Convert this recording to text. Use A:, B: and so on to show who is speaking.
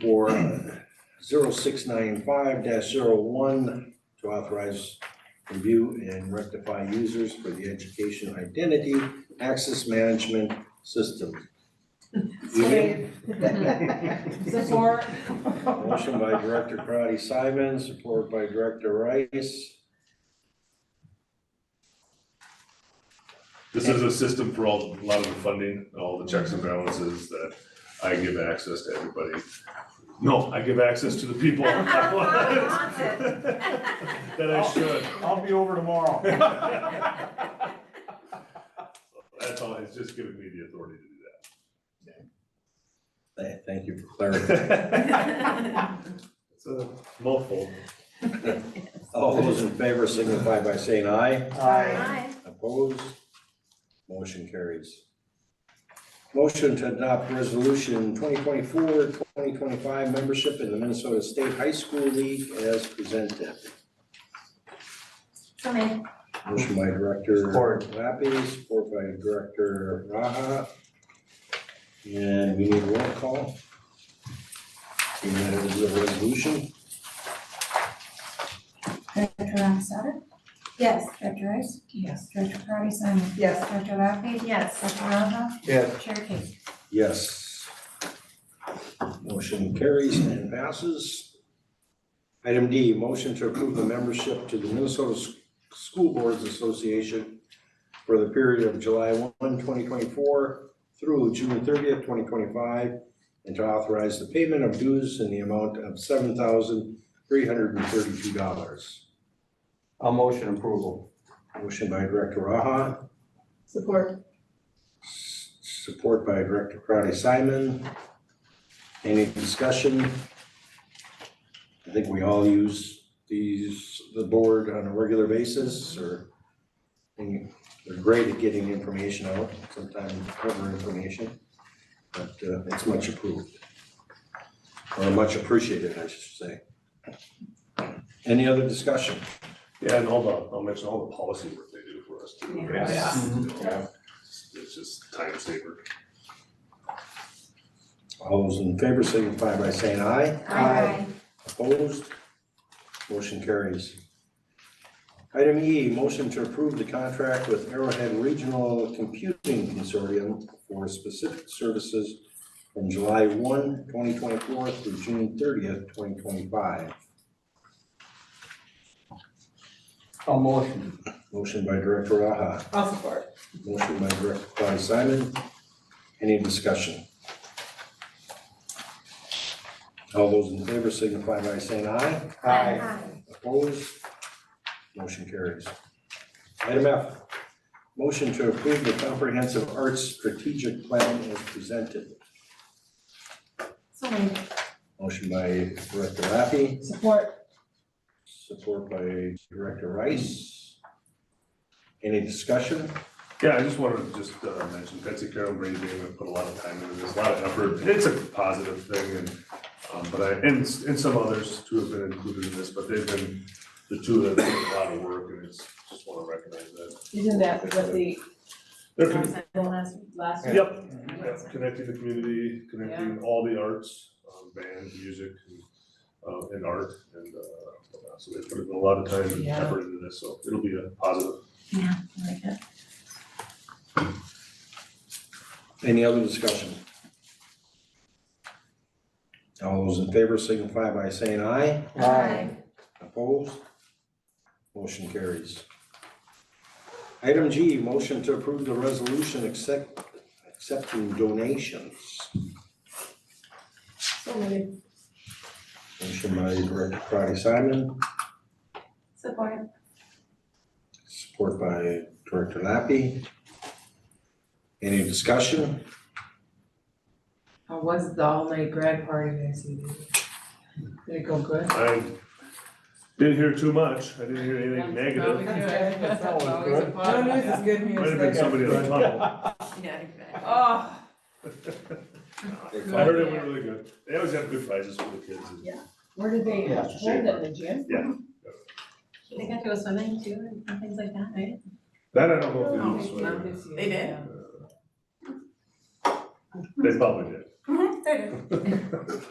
A: for 0695-01 to authorize review and rectify users for the education identity access management system. Evening.
B: Support.
A: Motion by Director Karati Simon, support by Director Rice.
C: This is a system for all, a lot of the funding, all the checks and balances that I give access to everybody. No, I give access to the people I want. That I should.
D: I'll be over tomorrow.
C: That's all, it's just giving me the authority to do
A: Th- Thank you for clarifying.
C: that. It's a mouthful.
A: All those in favor signify by saying aye.
D: Aye.
A: Opposed? Motion carries. Motion to adopt resolution 2024-2025 membership in the Minnesota State High School League as presented.
B: So many.
A: Motion by Director
D: Support.
A: Lappy, support by Director Raha. And we need a roll call. Seeing that it is a resolution,
E: Director Lasada,
B: Yes.
E: Director Rice,
B: Yes.
E: Director Karati Simon,
F: Yes.
E: Director Lapi,
B: Yes.
E: Director Raha,
D: Yes.
E: Chair Casey.
A: yes. Motion carries and passes. Item D, motion to approve the membership to the Minnesota S- School Boards Association for the period of July 1, 2024 through June thirtieth, twenty twenty-five, and to authorize the payment of dues in the amount of seven thousand three hundred and thirty-two dollars.
D: I'll motion approval.
A: Motion by Director Raha,
F: Support.
A: s- support by Director Crowdy Simon. Any discussion? I think we all use these, the board on a regular basis or and they're great at getting information out, sometimes cover information, but uh, it's much approved. Or much appreciated, I should say. Any other discussion?
C: Yeah, and all the, I'll mention all the policy work they do for us too. right?
D: Yeah.
C: It's just time saver.
A: All those in favor signify by saying aye. Opposed? Motion carries. Item E, motion to approve the contract with Arrowhead Regional Computing Consortium for specific services from July 1, 2024 through June 30th, 2025.
D: I'll motion.
A: Motion by Director Raha,
F: I'll support.
A: motion by Director Claudia Simon. Any discussion? All those in favor signify by saying aye.
D: Aye.
A: Opposed? Motion carries. Item F, motion to approve the comprehensive arts strategic plan as presented.
B: So many.
A: Motion by Director Laffey,
F: Support.
A: support by Director Rice. Any discussion?
C: Yeah, I just wanted to just uh, mention Betsy Carroll and Brady Damon put a lot of time into this, a lot of effort. It's a positive thing and, um, but I, and, and some others too have been included in this, but they've been, the two that have done a lot of work and it's, just want to recognize that.
F: Isn't that what the,
C: They're con-
F: last, last?
C: Yep, yep, connecting the community, connecting all the arts, um, band, music, and, uh, and art. And, uh, so they put in a lot of time and
F: Yeah.
C: effort into this, so it'll be a positive.
A: Any other discussion? All those in favor signify by saying aye.
D: Aye.
A: Opposed? Motion carries. Item G, motion to approve the resolution accept, accepting donations.
F: So many.
A: Motion by Director Karati Simon,
B: Support.
A: support by Director Lappy. Any discussion?
F: How was the all-night grad party this evening? Did it go good?
C: I didn't hear too much. I didn't hear anything
F: That's
C: negative.
F: always good. That's
D: That was
F: always a
D: good.
F: positive.
G: No news is good news.
C: Might have been somebody in the tunnel.
B: Yeah, exactly.
F: Oh,
C: I heard it went really good. They always have good prizes for the kids. and-
F: where did they
D: Yeah,
F: hold it in the gym?
B: They got to go swimming too and things like that, right?
C: That I don't
F: Oh,
C: know if they
F: Not
C: do, so
F: this year.
B: They did?
C: Uh, they probably did.
B: They did.